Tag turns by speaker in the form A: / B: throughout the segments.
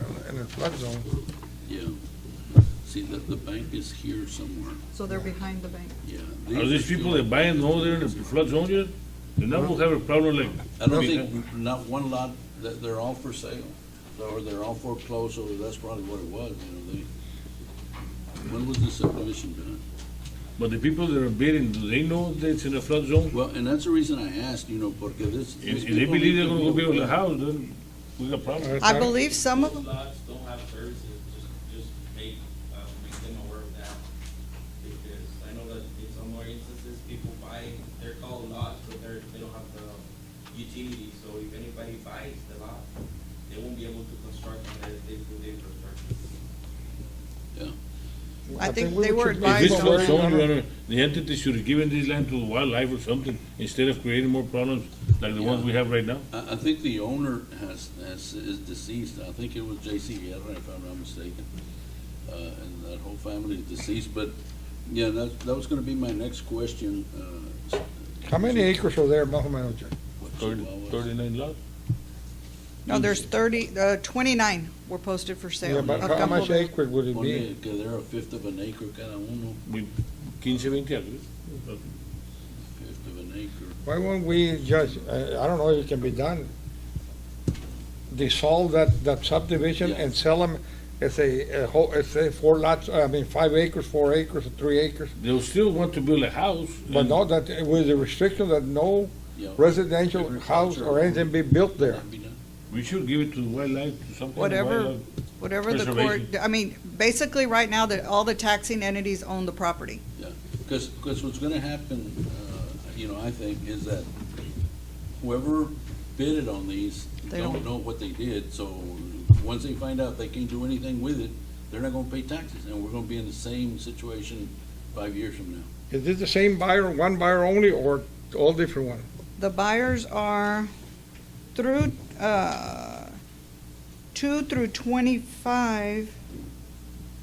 A: a flood zone.
B: Yeah. See, the, the bank is here somewhere,
C: So they're behind the bank.
B: yeah.
D: Are these people that buy and know they're in the flood zone yet? Then that will have a problem like,
B: I don't think, not one lot, that they're all for sale, or they're all foreclosed, or that's probably what it was, you know, they. When was the subdivision done?
D: but the people that are bidding, do they know that it's in a flood zone?
B: Well, and that's the reason I asked, you know, porque this.
D: If
B: these
D: if they
B: people
D: believe
B: need
D: they're
B: to
D: gonna go build a
B: aware.
D: house, then we got a problem.
C: I believe some of them,
E: Lots don't have services, just, just make, uh, make them aware of that. Because I know that in some more instances, people buy, they're called lots, but they're, they don't have the utility. So if anybody buys the lot, they won't be able to construct unless they do the infrastructure.
B: Yeah.
C: I think
A: we
C: they were
A: should leave
D: If
C: advised
D: it's
A: some
D: flood
A: land
C: already.
D: zone,
A: on
D: Your
A: it.
D: Honor, the entity should have given this land to wildlife or something, instead of creating more problems like the ones we have right now.
B: I, I think the owner has, has, is deceased, I think it was J.C. Guerra, if I'm not mistaken. Uh, and that whole family is deceased, but, yeah, that, that was gonna be my next question, uh.
A: How many acres are there, Maho Manager?
B: what
D: Thirty-
B: Chihuahua-
D: Thirty-nine lots.
C: No, there's thirty, uh, twenty-nine were posted for sale.
A: Yeah, but
C: A
A: how
C: couple
A: much
C: of-
A: acre would it be?
B: Ponle que they're a fifth of an acre, cada uno,
D: with quince, veinte acres.
B: fifth of an acre.
A: Why won't we just, I, I don't know if it can be done, dissolve that, that subdivision
B: Yeah.
A: and sell them as a, a whole, as a four lots, I mean, five acres, four acres, three acres.
D: They'll still want to build a house.
A: But
D: and-
A: no, that, with the restriction that no
B: Yeah.
A: residential house or anything be built there.
B: That'd be nice.
D: We should give it to wildlife, to some kind of
C: Whatever.
D: wildlife.
C: Whatever the court,
D: Preservation.
C: I mean, basically, right now, that all the taxing entities own the property.
B: Because, what's gonna happen, uh, you know, I think, is that whoever bidded on these
C: They
B: don't
C: don't-
B: know what they did, so once they find out they can't do anything with it, they're not gonna pay taxes, and we're gonna be in the same situation five years from now.
A: Is it the same buyer, one buyer only, or all different one?
C: The buyers are through, uh, two through twenty-five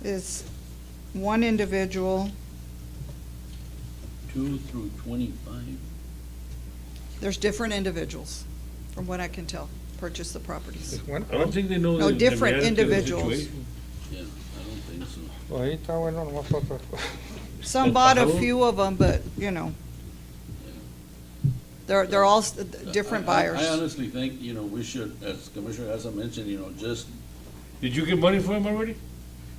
C: is one individual.
B: Two through twenty-five,
C: There's different individuals, from what I can tell, purchase the properties.
A: Just one?
D: I don't think they know.
C: No,
D: the- the
C: different
D: reality of the
C: individuals.
D: situation.
B: yeah, I don't think so.
A: Ahorita, bueno, nomás otra.
C: Some bought a
D: Pajaro?
C: few of them, but, you know. They're, they're all s- different
B: I- I- I
C: buyers.
B: honestly think, you know, we should, as Commissioner Asa mentioned, you know, just
D: Did you get money for them already?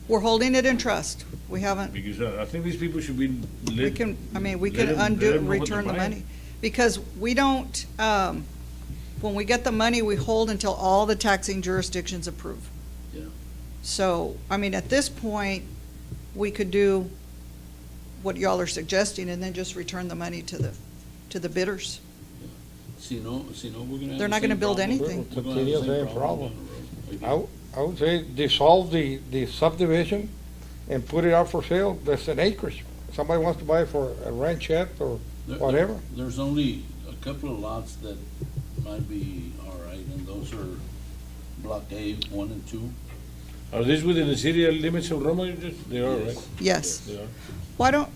C: We're holding it in trust. We haven't,
D: Because uh, I, I think these people should be let.
C: we can, I mean, we
D: let
C: can
D: them- let
C: undo,
D: them know what
C: return the
D: they're buying.
C: money. Because we don't, um, when we get the money, we hold until all the taxing jurisdictions approve.
B: Yeah.
C: So, I mean, at this point, we could do what y'all are suggesting and then just return the money to the, to the bidders.
B: See, no, see, no, we're gonna have the
C: They're not gonna
B: same
C: build
B: problem.
C: anything.
B: We're gonna have
A: Continue
B: the
A: the same
B: down the road.
A: I, w- I would say dissolve the, the subdivision and put it out for sale, that's an acreage. Somebody wants to buy it for a ranchette or
B: There-
A: whatever.
B: There's only a couple of lots that might be all right, and those are block A, one and two.
D: Are these within the city limits of Roma? You just- They are, right?
B: Yes.
C: Yes.
D: They are.
C: Why don't,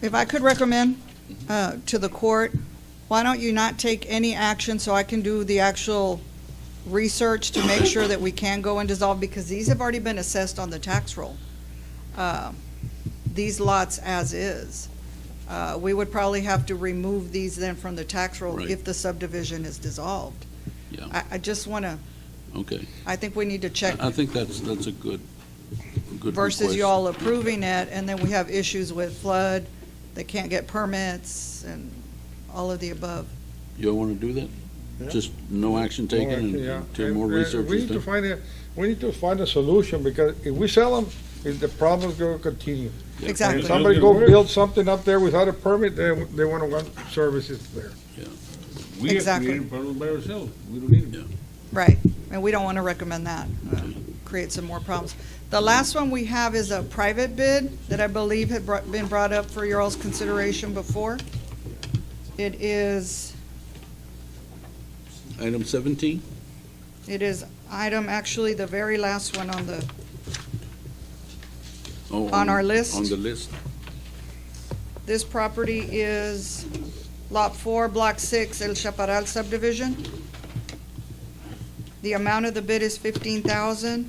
C: if I could recommend uh, to the court, why don't you not take any action so I can do the actual research to make sure that we can go and dissolve, because these have already been assessed on the tax roll. Uh, These lots as is. Uh, We would probably have to remove these then from the tax roll
B: Right.
C: if the subdivision is dissolved.
B: Yeah.
C: I, I just want to,
B: Okay.
C: I think we need to check
B: I think that's, that's a good, good
C: versus you all approving it, and then we have issues with flood, they can't get permits, and all of the above.
B: You all wanna do that?
A: Yeah.
B: Just no action taken
A: Yeah.
B: until
A: And,
B: more
A: uh,
B: research
A: We
B: is
A: need to
B: done?
A: find a, we need to find a solution, because if we sell them, the problem's gonna continue.
B: Yeah.
A: If
C: Exactly.
A: somebody
D: It'll
A: go
D: be worse.
A: build something up there without a permit, they, they wanna want services there.
D: We are
C: Exactly.
D: creating problems by ourselves. We don't need them.
C: Right, and we don't want to recommend that, uh, create some more problems. The last one we have is a private bid that I believe had brought- been brought up for your all's consideration before. It is,
B: Item seventeen?
C: it is item, actually, the very last one on the,
B: Oh,
C: On our list?
B: On the list.
C: this property is Lot 4, Block 6, El Chaparral subdivision. The amount of the bid is 15,000.